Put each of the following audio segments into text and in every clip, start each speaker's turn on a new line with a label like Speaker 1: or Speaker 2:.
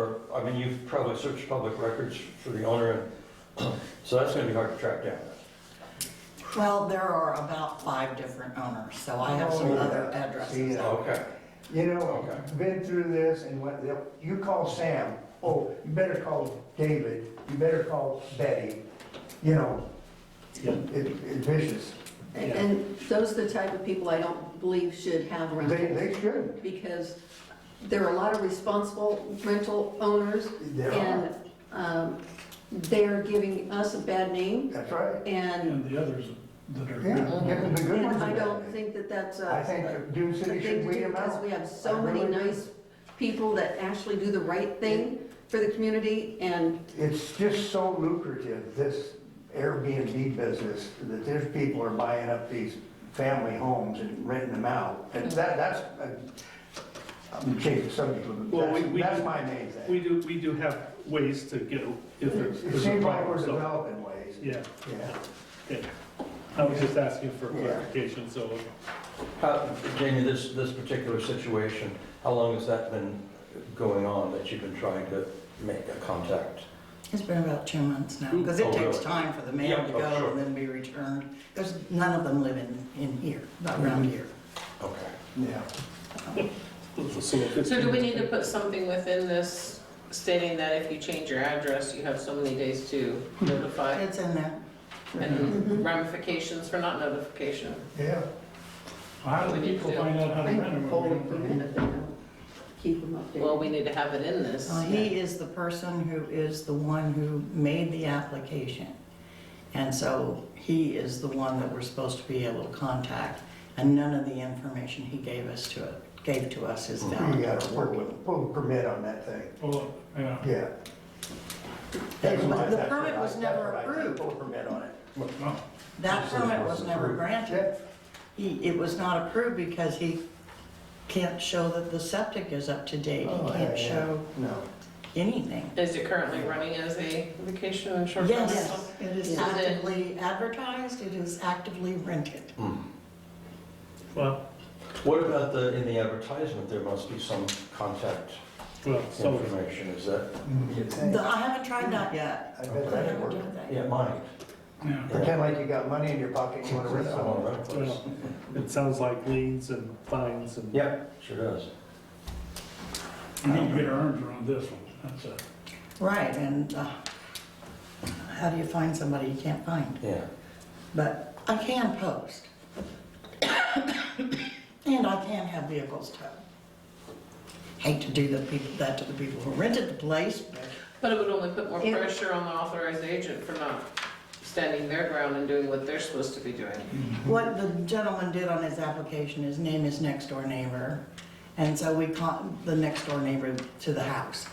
Speaker 1: Or, I mean, you've probably searched public records for the owner, and so that's gonna be hard to track down.
Speaker 2: Well, there are about five different owners, so I have some
Speaker 3: Oh,
Speaker 2: other
Speaker 3: yeah.
Speaker 2: addresses.
Speaker 3: See, uh,
Speaker 1: Okay,
Speaker 3: You know,
Speaker 1: Okay.
Speaker 3: been through this and what, you call Sam, oh, you better call David, you better call Betty, you know,
Speaker 4: Yeah.
Speaker 3: it- it's vicious.
Speaker 5: And- And those are the type of people I don't believe should have
Speaker 3: They,
Speaker 5: rentals,
Speaker 3: they should,
Speaker 5: because there are a lot of responsible rental owners,
Speaker 3: there are,
Speaker 5: and um, they're giving us a bad name,
Speaker 3: that's right.
Speaker 5: and,
Speaker 4: And the others that are.
Speaker 3: Yeah, yeah, the good
Speaker 5: and
Speaker 3: ones.
Speaker 5: I
Speaker 3: are
Speaker 5: don't
Speaker 3: bad.
Speaker 5: think that that's a
Speaker 3: I
Speaker 5: a
Speaker 3: think Dune City
Speaker 5: good
Speaker 3: should
Speaker 5: thing to
Speaker 3: weed
Speaker 5: do,
Speaker 3: them
Speaker 5: because
Speaker 3: out.
Speaker 5: we have
Speaker 3: I
Speaker 5: so many
Speaker 3: really do.
Speaker 5: nice people that actually do the right thing for the community, and
Speaker 3: It's just so lucrative, this Airbnb business, that there's people are buying up these family homes and renting them out. And that, that's, uh, I'm changing the subject a little bit.
Speaker 6: Well, we-
Speaker 3: That's-
Speaker 6: we-
Speaker 3: That's my main thing.
Speaker 6: We do, we do have ways to go if there's.
Speaker 3: It
Speaker 6: there's a
Speaker 3: seems like
Speaker 6: problem,
Speaker 3: we're
Speaker 6: so-
Speaker 3: developing ways.
Speaker 6: Yeah,
Speaker 3: Yeah.
Speaker 6: okay. I was just asking for
Speaker 3: Yeah.
Speaker 6: clarification, so
Speaker 1: how, Jamie, this, this particular situation, how long has that been going on that you've been trying to make a contact?
Speaker 2: It's been about two months now, because it
Speaker 1: Oh,
Speaker 2: takes
Speaker 1: really?
Speaker 2: time for the mail
Speaker 1: Yeah,
Speaker 2: to
Speaker 1: oh,
Speaker 2: go
Speaker 1: sure.
Speaker 2: and then be returned, because none of them live in, in here,
Speaker 1: Mm-hmm.
Speaker 2: not around here.
Speaker 1: Okay.
Speaker 3: Yeah.
Speaker 6: so if it's-
Speaker 7: So do we need to put something within this stating that if you change your address, you have so many days to notify?
Speaker 2: It's in there.
Speaker 7: And ramifications for not notification?
Speaker 3: Yeah.
Speaker 4: How do people find out how to
Speaker 5: I
Speaker 4: rent them?
Speaker 5: don't hold them if they don't keep them updated.
Speaker 7: Well, we need to have it in this.
Speaker 2: Uh, He is the person who is the one who made the application. And so he is the one that we're supposed to be able to contact, and none of the information he gave us to, gave to us is
Speaker 3: You
Speaker 1: Mm-hmm.
Speaker 2: valid.
Speaker 3: gotta work with, pull a permit on that thing.
Speaker 4: Well, yeah.
Speaker 3: Yeah. That's
Speaker 2: It was-
Speaker 3: my-
Speaker 2: the
Speaker 3: that's what
Speaker 2: permit
Speaker 3: I-
Speaker 2: was
Speaker 3: that's
Speaker 2: never
Speaker 3: what I think,
Speaker 2: approved.
Speaker 3: Pull a permit on it.
Speaker 4: Well,
Speaker 2: That permit was never granted.
Speaker 3: Yeah.
Speaker 2: He, it was not approved because he can't show that the septic is up to date.
Speaker 3: Oh,
Speaker 2: He
Speaker 3: yeah,
Speaker 2: can't
Speaker 3: yeah.
Speaker 2: show
Speaker 3: No.
Speaker 2: anything.
Speaker 7: Is it currently running as a vacation and short-term rental?
Speaker 2: Yes, it is
Speaker 7: Is it-
Speaker 2: actively advertised, it is actively rented.
Speaker 6: Well,
Speaker 1: Hmm. What about the, in the advertisement, there must be some contact
Speaker 6: well, so,
Speaker 1: information, is that?
Speaker 3: You'd think.
Speaker 2: The- I haven't tried that yet.
Speaker 3: I bet
Speaker 2: I
Speaker 3: that'd
Speaker 2: haven't
Speaker 3: work.
Speaker 2: done that yet.
Speaker 1: Yeah, mine.
Speaker 4: yeah.
Speaker 3: Pretend like you got money in your pocket, and you wanna rent someone.
Speaker 6: well, it sounds like liens and fines and.
Speaker 1: Yeah, sure does.
Speaker 4: We need to get our arms around this one, that's it.
Speaker 2: Right, and uh, how do you find somebody you can't find?
Speaker 1: Yeah.
Speaker 2: But I can post. And I can have vehicles towed. Hate to do the people, that to the people who rented the place, but
Speaker 7: But it would only put more
Speaker 2: Yeah.
Speaker 7: pressure on the authorized agent for not standing their ground and doing what they're supposed to be doing.
Speaker 2: What the gentleman did on his application, his name is next door neighbor, and so we con, the next door neighbor to the house.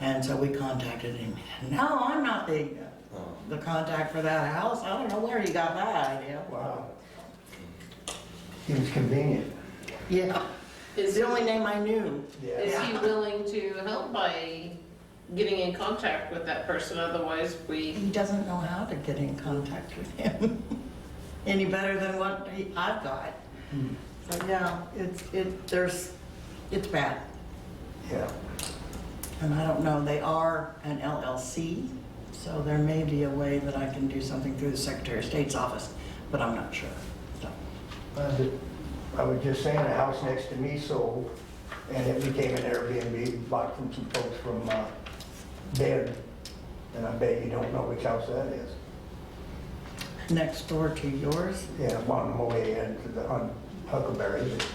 Speaker 2: And so we contacted him, no, I'm not the,
Speaker 1: Oh.
Speaker 2: the contact for that house, I don't know where you got that idea.
Speaker 3: Wow. It was convenient.
Speaker 2: Yeah, it's
Speaker 7: Is
Speaker 2: the only name I knew.
Speaker 7: Is he willing to help by getting in contact with that person? Otherwise, we
Speaker 2: He doesn't know how to get in contact with him, any better than what he- I've got. But yeah, it's, it, there's, it's bad.
Speaker 3: Yeah.
Speaker 2: And I don't know, they are an LLC, so there may be a way that I can do something through the Secretary of State's office, but I'm not sure. So,
Speaker 3: I did- I was just saying, a house next to me sold, and it became an Airbnb, bought from some folks from uh, Bed. And I bet you don't know which house that is.
Speaker 2: Next door to yours?
Speaker 3: Yeah, on the way into the, on Huckleberry, but,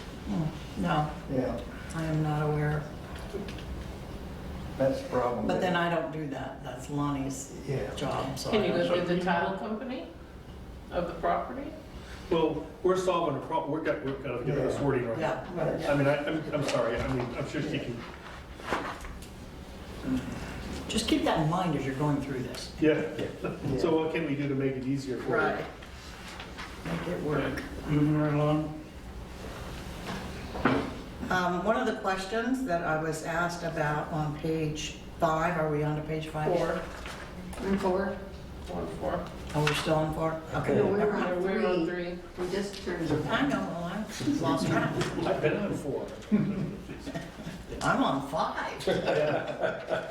Speaker 2: No,
Speaker 3: yeah,
Speaker 2: I am not aware.
Speaker 3: that's the problem.
Speaker 2: But then I don't do that, that's Lonnie's
Speaker 3: Yeah.
Speaker 2: job, so. I
Speaker 7: Can you
Speaker 2: don't-
Speaker 7: go through the title company of the property?
Speaker 6: Well, we're solving a problem, we're got, we've got to get this wording right.
Speaker 2: Yeah,
Speaker 6: I mean, I, I'm, I'm sorry, I mean, I'm sure she can,
Speaker 2: just keep that in mind as you're going through this,
Speaker 6: yeah. So what can we do to make it easier for her?
Speaker 2: make it work.
Speaker 4: Moving right along,
Speaker 2: Um, one of the questions that I was asked about on page five, are we on to page five? yet?
Speaker 7: Four,
Speaker 5: Room four?
Speaker 7: one, four.
Speaker 2: Oh, we're still on four? Okay.
Speaker 5: No, we're
Speaker 2: never mind.
Speaker 5: on
Speaker 7: We're on
Speaker 5: three.
Speaker 7: three.
Speaker 5: We just turned it.
Speaker 2: I know, well, I lost track.
Speaker 6: I've been on four.
Speaker 2: I'm on five.